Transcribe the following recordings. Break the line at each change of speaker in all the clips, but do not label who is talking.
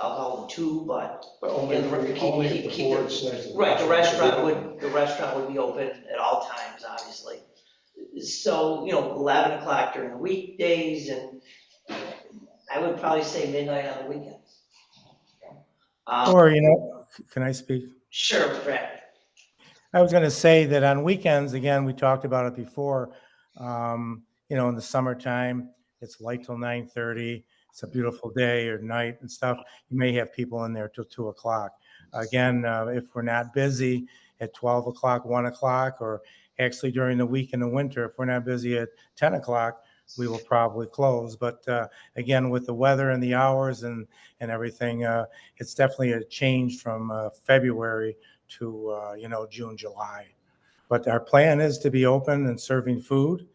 I'll call them two, but,
But only,
Yeah, the-
if-
keep-
only if
keep-
the
keep
board says. that
right, the
restaurant
restaurant
should be open.
would, the restaurant would be open at all times, obviously. So, you know, 11 o'clock during the weekdays and I would probably say midnight on the weekends. Um,
Or, you know, can I speak?
Sure, Brad.
I was going to say that on weekends, again, we talked about it before, um, you know, in the summertime, it's light till 9:30. It's a beautiful day or night and stuff. You may have people in there till 2 o'clock. Again, uh, if we're not busy at 12 o'clock, 1 o'clock, or actually during the week in the winter, if we're not busy at 10 o'clock, we will probably close. But uh, again, with the weather and the hours and, and everything, uh, it's definitely a change from uh, February to, uh, you know, June, July. But our plan is to be open and serving food,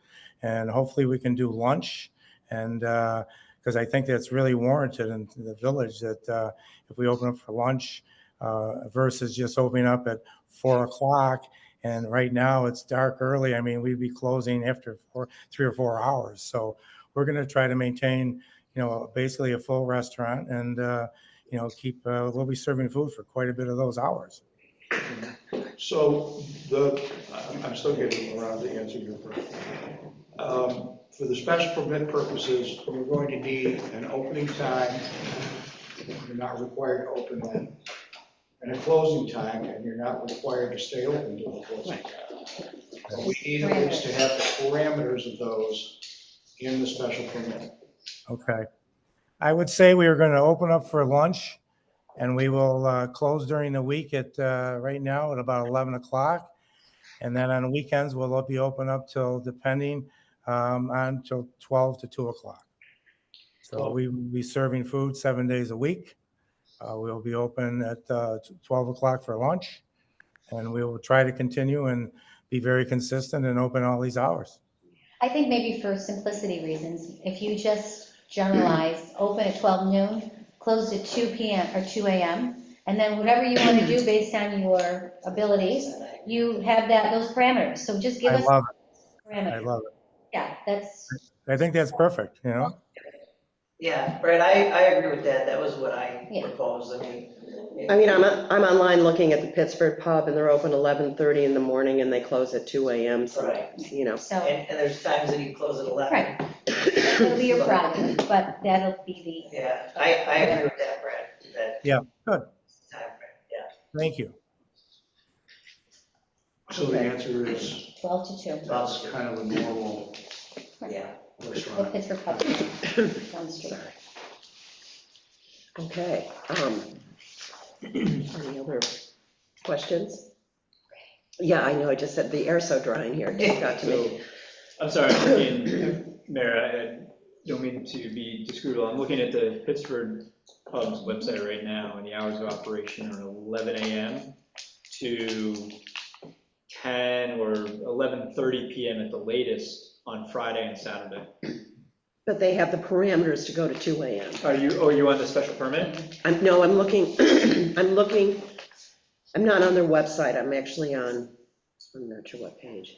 and hopefully we can do lunch. And, because I think that's really warranted in the village, that uh, if we open up for lunch uh, versus just opening up at four o'clock, and right now it's dark early, I mean, we'd be closing after four, three or four hours. So we're going to try to maintain, you know, basically a full restaurant and, uh, you know, keep, uh, we'll be serving food for quite a bit of those hours.
So the, I'm- I'm still getting around to answer your question. Um, For the special permit purposes, we're going to need an opening time, you're not required to open then, and a closing time, and you're not required to stay open to the closing time. What we need is to have the parameters of those in the special permit.
Okay. I would say we are going to open up for lunch and we will uh, close during the week at, uh, right now at about 11 o'clock. And then on weekends, we'll be open up till depending um, on till 12 to 2 o'clock. So we will be serving food seven days a week. Uh, We'll be open at uh, 12 o'clock for lunch. And we will try to continue and be very consistent and open all these hours.
I think maybe for simplicity reasons, if you just generalize, open at 12 noon, close at 2 PM or 2 AM, and then whatever you want to do based on your abilities, you have that, those parameters. So just give
I
us
love it. I
parameters.
love it.
Yeah, that's,
I think that's perfect, you know?
Yeah, Brad, I, I agree with that. That was what I
Yeah.
proposed. I mean,
I mean, I'm, I'm online looking at the Pittsburgh pub, and they're open 11:30 in the morning, and they close at 2 AM, so,
Right,
you know.
so,
and, and there's times that you close at 11.
Right. it'll be your problem, but that'll be
Yeah, I, I agree with that, Brad, that.
Yeah, good.
Time frame, Yeah,
Thank you.
So the answer is,
the 12 to 2.
that's kind of a normal
yeah.
The
restaurant.
Pittsburgh Pub down the street.
Sorry. Okay. um, Any other questions? Yeah, I know, I just said the air's so dry in here, it just got to me.
I'm sorry, I'm looking, Mayor, I- I don't mean to be disagreeable. I'm looking at the Pittsburgh Pub's website right now, and the hours of operation are 11 AM to 10 or 11:30 PM at the latest on Friday and Saturday.
But they have the parameters to go to 2 AM.
Are you, oh, you on the special permit?
I'm, no, I'm looking, I'm looking, I'm not on their website, I'm actually on, I'm not sure what page.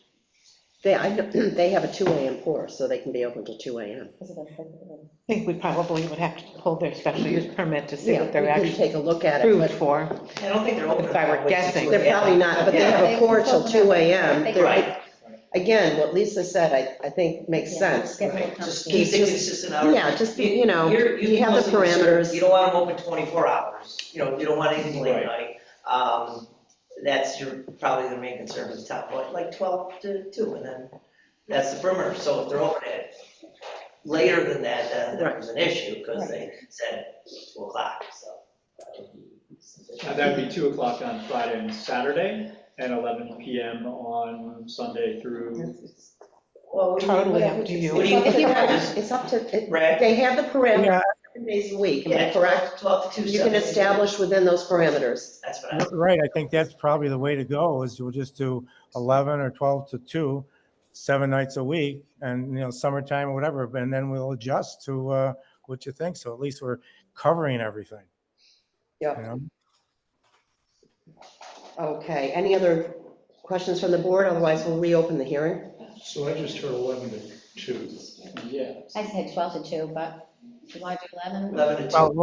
They, I, know- they have a 2 AM pour, so they can be open till 2 AM.
I think we probably would have to pull their special use permit to see
Yeah,
what
we
they're
can
actually
take a look at it,
approved
but
for.
I don't think they're open.
If I were guessing.
they're probably not, but they have a pour till 2 AM. They're-
Right,
Again, what Lisa said, I, I think makes sense.
right, just keep it consistent hours.
Yeah, just be, you know,
You're-
you have the
can also consider- You
parameters.
don't want them open 24 hours, you know, you don't want anything late
Right.
night. Um, That's your, probably the main concern with the top one, like 12 to 2, and then that's the perimeter. So if they're open at later than that, then there's an issue, because they said 2 o'clock, so.
Uh, That would be 2 o'clock on Friday and Saturday, and 11 PM on Sunday through,
Well, what do you-
Totally up to you.
What do you
It's
think?
up to- It's up to, it-
Brad?
they have the
Yeah,
parameters seven days a week, am I
Yeah,
correct?
12 to 2.
You can
seven.
establish within those parameters.
That's what I.
r- right, I think that's probably the way to go, is we'll just do 11 or 12 to 2, seven nights a week, and, you know, summertime or whatever, and then we'll adjust to uh, what you think, so at least we're covering everything.
Yep.
you know?
Okay, any other questions from the board? Otherwise, we'll reopen the hearing.
So I just heard 11 to 2.
yeah.
I said 12 to 2, but if you want to do 11?
11 to 2.
Well,